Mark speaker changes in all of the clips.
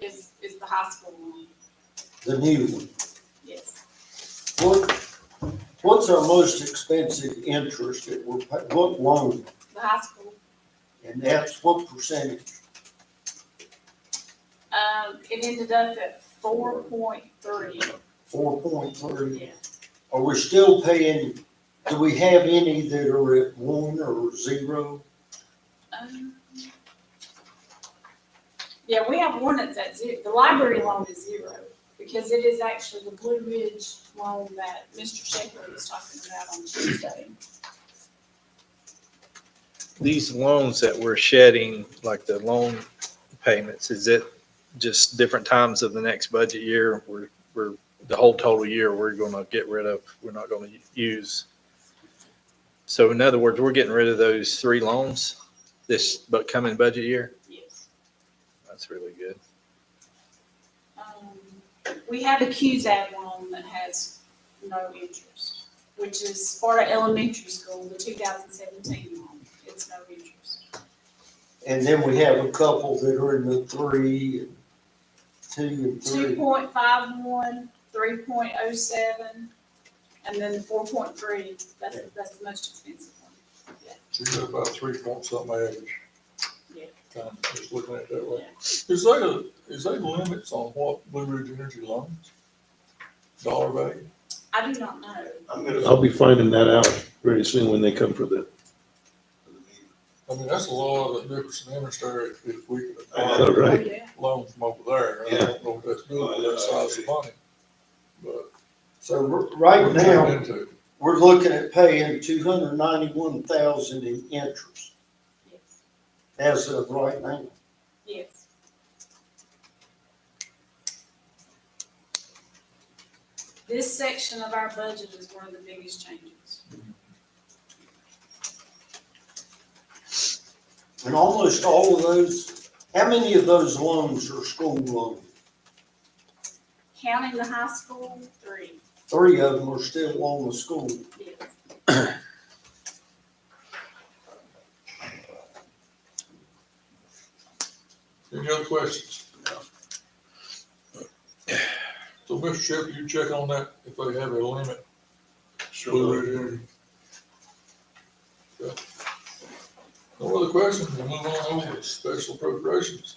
Speaker 1: is, is the high school one,
Speaker 2: the new one.
Speaker 1: yes.
Speaker 2: What, what's our most expensive interest that we're, pay- what loan?
Speaker 1: The high school,
Speaker 2: And that's what percentage?
Speaker 1: um, it ended up at four point three,
Speaker 2: Four point three?
Speaker 1: yeah.
Speaker 2: Are we still paying, do we have any that are at one or zero?
Speaker 1: Um, Yeah, we have one that's at zero, the library loan is zero, because it is actually the Blue Ridge loan that Mr. Shepherd was talking about on Tuesday.
Speaker 3: These loans that we're shedding, like the loan payments, is it just different times of the next budget year? We're, we're, the whole total year, we're gonna get rid of, we're not gonna use. So in other words, we're getting rid of those three loans this bu- coming budget year?
Speaker 1: Yes.
Speaker 3: That's really good.
Speaker 1: Um, We have a QZAD loan that has no interest, which is Sparta Elementary School, the two thousand seventeen loan, it's no interest.
Speaker 2: And then we have a couple that are in the three, and two and
Speaker 1: Two
Speaker 2: three.
Speaker 1: point five one, three point oh seven, and then four point three, that's, that's the most expensive one.
Speaker 4: So you got about three point something average.
Speaker 1: Yeah.
Speaker 4: Kind of just looking at it that way.
Speaker 1: Yeah.
Speaker 4: Is there, is there limits on what Blue Ridge Energy loans? Dollar value?
Speaker 1: I do not know.
Speaker 5: I'm gonna, I'll be finding that out very soon when they come for the.
Speaker 4: I mean, that's a lot of the difference in interest there if, if we could
Speaker 5: All
Speaker 4: acquire
Speaker 5: right,
Speaker 1: Oh, Yeah.
Speaker 4: loans from over there. I don't know if that's good with that size of money. But
Speaker 2: So r- right
Speaker 4: we're getting
Speaker 2: now,
Speaker 4: into it.
Speaker 2: we're looking at paying two hundred ninety-one thousand in interest
Speaker 1: Yes.
Speaker 2: as of right now.
Speaker 1: Yes. This section of our budget is one of the biggest changes.
Speaker 2: And almost all of those, how many of those loans are school loans?
Speaker 1: Counting the high school, three,
Speaker 2: Three of them are still on the school.
Speaker 1: yes.
Speaker 4: Any other questions? So, Mr. Shepard, you check on that, if they have a limit, Blue Ridge Energy. Okay. No other questions, we'll move on over to special appropriations.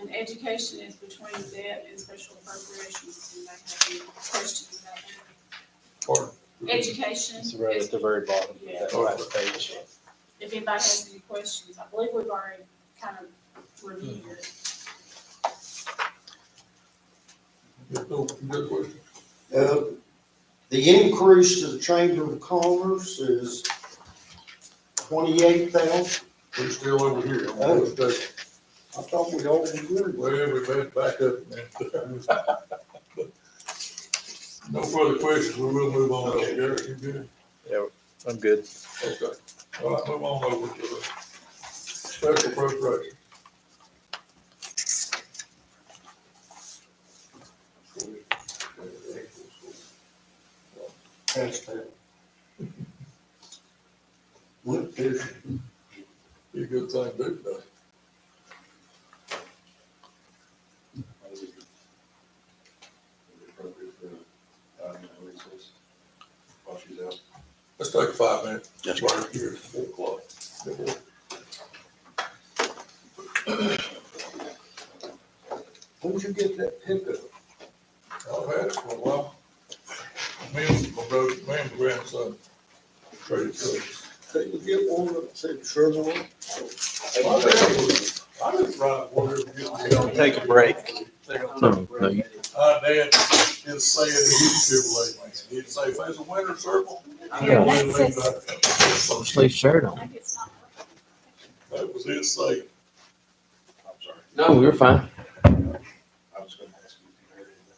Speaker 1: And education is between debt and special appropriations. Do you have any questions about that?
Speaker 4: Pardon?
Speaker 1: Education
Speaker 3: It's
Speaker 1: is,
Speaker 3: right at the very bottom
Speaker 1: Yeah.
Speaker 3: of that
Speaker 5: Oh.
Speaker 3: last page.
Speaker 1: if anybody has any questions, I believe we've already kind of reviewed it.
Speaker 4: Yeah, no, you got a question?
Speaker 2: Uh, The increase to the Chamber of Commerce is twenty-eight thousand.
Speaker 4: We're still over here. I'm
Speaker 2: Oh.
Speaker 4: gonna stay.
Speaker 2: I thought we all agreed with.
Speaker 4: Well, we better back up, man. No further questions, we will move on.
Speaker 5: Okay.
Speaker 4: Derek, you good?
Speaker 3: I'm good.
Speaker 4: Okay, all right, move on over to the special appropriation.
Speaker 2: That's that. Went through.
Speaker 4: Be a good thing to do today. Let's take a five minute.
Speaker 5: Yes, sir.
Speaker 4: break here at four o'clock.
Speaker 2: Where'd you get that pickup?
Speaker 4: I've had it for a while. Me and my brother, me and my grandson traded trucks.
Speaker 2: Couldn't you get one that said Sherman?
Speaker 4: My dad was- I just ride whatever. you-
Speaker 3: Take a break.
Speaker 5: No, no, you-
Speaker 4: Uh, Dad, is saying that he's Chevrolet man. He'd say, if there's a winter circle.
Speaker 1: I
Speaker 4: we'll
Speaker 1: know.
Speaker 4: leave
Speaker 5: Just
Speaker 4: that."
Speaker 5: leave shirt on.
Speaker 1: I think it's not.
Speaker 4: That was his say.
Speaker 6: I'm sorry.
Speaker 5: No, we were fine.
Speaker 6: I was gonna ask you if you heard anything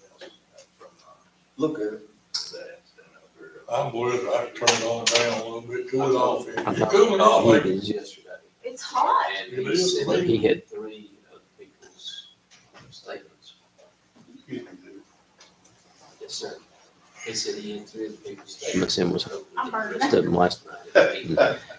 Speaker 6: else from, uh,
Speaker 2: Look at it.
Speaker 6: that incident up there.
Speaker 4: I'm worried I turned on down a little bit, cool it off.
Speaker 5: I
Speaker 4: It's
Speaker 5: thought
Speaker 4: cooling off,
Speaker 5: he
Speaker 4: Oh, like,
Speaker 6: It
Speaker 5: did.
Speaker 6: was yesterday.
Speaker 1: It's hot.
Speaker 6: And he said that he had three of the people's statements. Yes, sir. He said he had three of the people's statements.
Speaker 5: Must have been-
Speaker 1: I'm burning.
Speaker 5: Just didn't last.
Speaker 6: Right.